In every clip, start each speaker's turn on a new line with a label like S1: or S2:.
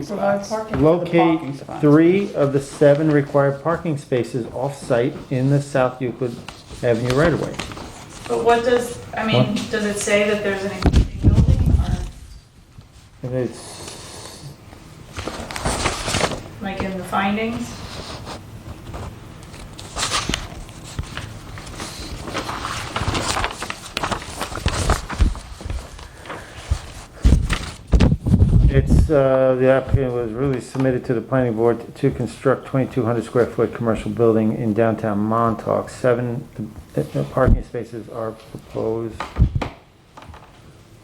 S1: Provide parking for the parking
S2: Locate
S1: spots.
S2: three of the seven required parking spaces off-site in the South Euclid Avenue right-of-way.
S3: But what does, I mean, does it say that there's an existing building or
S2: And it's,
S3: like in the findings?
S2: it's, uh, the applicant was really submitted to the planning board to construct 2,200 square foot commercial building in downtown Montauk. Seven uh, uh, parking spaces are proposed.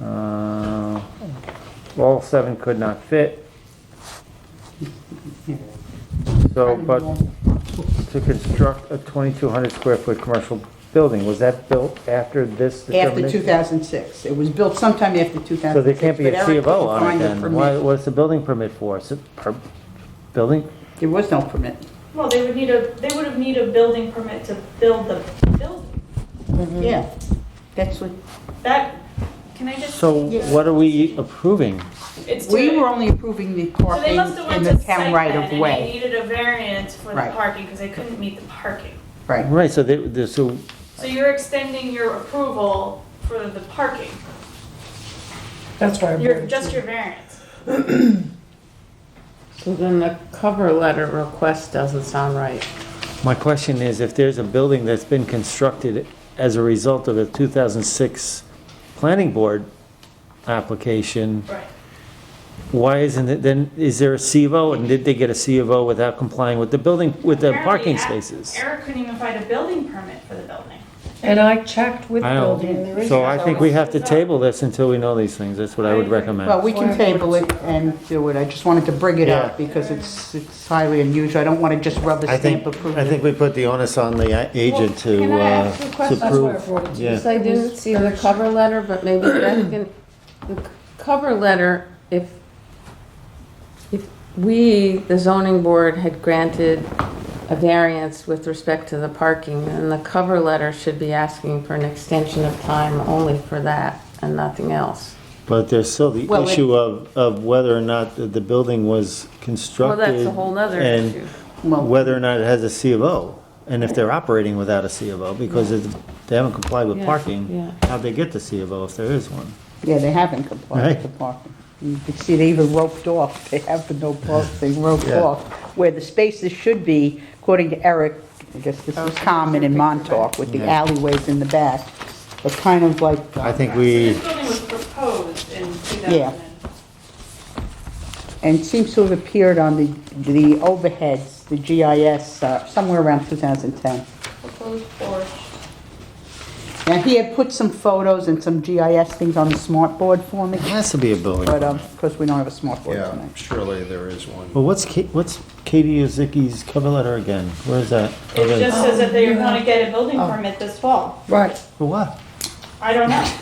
S2: Uh, All seven could not fit. So, but to construct a 2,200 square foot commercial building. Was that built after this
S1: After
S2: determination?
S1: 2006. It was built sometime after 2006.
S2: So there can't be
S1: but
S2: a C
S1: Eric
S2: of
S1: couldn't
S2: O on it
S1: find the
S2: then?
S1: permit.
S2: Why, what's the building permit for? Is it per, building?
S1: There was no permit.
S3: Well, they would need a, they would have need a building permit to build the building. Mm-hmm.
S1: Yeah, that's what,
S3: That, can I just?
S2: So
S1: Yeah.
S2: what are we approving?
S3: It's
S1: we
S3: to-
S1: were only approving the
S3: So
S1: parking
S3: they must have
S1: in
S3: went
S1: the
S3: to site
S1: town right
S3: plan
S1: of
S3: and they
S1: way.
S3: needed a variance for the
S1: Right.
S3: parking because they couldn't meet the parking.
S1: Right,
S2: Right, so they, they- so,
S3: So you're extending your approval for the parking,
S4: That's why I
S3: your,
S4: brought it
S3: just
S4: to you.
S3: your variance.
S5: So then the cover letter request doesn't sound right.
S2: my question is, if there's a building that's been constructed as a result of a 2006 planning board application,
S3: Right.
S2: why isn't it, then, is there a C of O? And did they get a C of O without complying with the building, with the
S3: Apparently,
S2: parking
S3: Eric-
S2: spaces?
S3: Eric couldn't even find a building permit for the building.
S4: And I checked with
S2: I don't-
S4: building, there is.
S2: So I think we have to
S3: No.
S2: table this until we know these things, that's what I would
S3: I agree.
S1: well,
S2: recommend.
S1: we can table it and do it. I just wanted to bring it up because it's, it's highly unusual. I don't want to just rubber
S6: I
S1: stamp
S6: think,
S1: approval.
S6: I think we put the onus on the agent to,
S5: Can I
S6: uh,
S5: ask you a
S6: to
S5: question?
S4: That's why I
S6: prove.
S4: brought it to you.
S6: Yeah.
S5: Because I didn't see the cover letter, but maybe Beth can, the c- cover letter, if, if we, the zoning board, had granted a variance with respect to the parking, then the cover letter should be asking for an extension of time only for that and nothing else.
S6: But there's still the
S1: Well, it-
S6: issue of, of whether or not the- the building was
S5: Well,
S6: constructed.
S5: that's a whole nother issue.
S6: And whether or not it has a C of O, and if they're operating without a C of O, because it's- they haven't complied with
S5: Yeah,
S6: parking,
S5: yeah.
S6: how'd they get the C of O if there is one?
S1: Yeah, they haven't complied with
S6: Right.
S1: the parking. You can see they even roped off, they have the no parking, they roped
S6: Yeah.
S1: off. Where the spaces should be, according to Eric, I guess this is common in Montauk with the
S6: Yeah.
S1: alleyways in the back, but kind of like,
S6: I think
S3: So
S6: we,
S3: This building was proposed in 2000.
S1: Yeah. and seems to have appeared on the, the overheads, the GIS, uh, somewhere around 2010.
S3: Proposed porch.
S1: Now, he had put some photos and some GIS things on the smart board for me,
S6: it has to be a building.
S1: but um, of course, we don't have a smart board
S7: Yeah,
S1: tonight.
S7: surely there is one.
S6: Well, what's Ka- what's Katie Ozicki's cover letter again? Where is that?
S3: It just says that they
S4: Oh,
S3: want
S4: yeah.
S3: to get a building permit this fall.
S4: Right,
S6: For what?
S3: I don't know.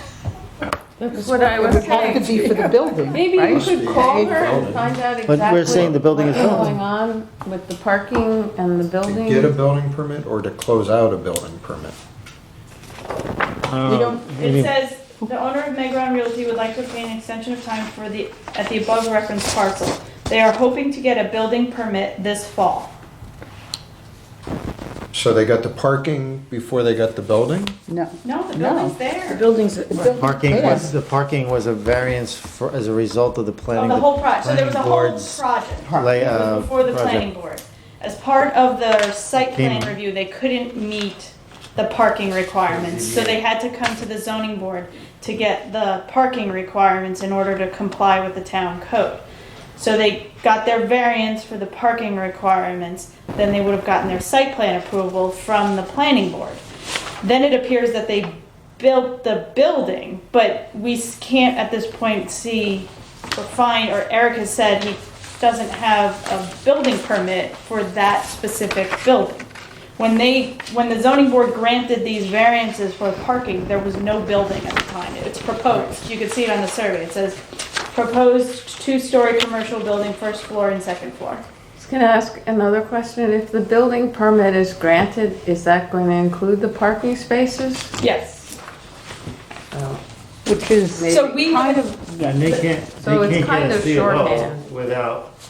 S5: That's what I
S1: It
S5: was
S1: would have to
S5: saying.
S1: be for the building,
S5: Maybe you
S1: right?
S5: could call her and find out exactly.
S6: we're saying the building is
S5: what's
S6: built.
S5: Going on with the parking and the
S7: To
S5: building.
S7: get a building permit or to close out a building permit?
S6: Uh, we
S3: It
S6: need-
S3: says, the owner of Megron Realty would like to obtain an extension of time for the, at the above referenced parcel. They are hoping to get a building permit this fall.
S7: So they got the parking before they got the building?
S1: No.
S3: No, the
S1: No.
S3: building's there.
S4: buildings, buildings
S6: Parking
S1: Yeah.
S6: was, the parking was a variance for, as a result of the
S3: Of
S6: planning.
S3: the whole project, so there was a whole
S6: board's
S3: project.
S6: lay-
S3: It
S6: uh,
S3: was before the
S6: project.
S3: planning board. As part of the site plan
S6: Came-
S3: review, they couldn't meet the parking requirements, so they had to come to the zoning board to get the parking requirements in order to comply with the town code. So they got their variance for the parking requirements, then they would have gotten their site plan approval from the planning board. Then it appears that they built the building, but we s- can't at this point see or find, or Eric has said he doesn't have a building permit for that specific building. When they, when the zoning board granted these variances for parking, there was no building at the time. It's proposed, you can see it on the survey, it says proposed two-story commercial building, first floor and second floor.
S5: I was gonna ask another question. If the building permit is granted, is that going to include the parking spaces? Um,
S3: Yes.
S1: Which is
S3: So we
S1: kind
S3: would-
S1: of,
S6: And they can't,
S5: So it's kind of shorthand.
S2: without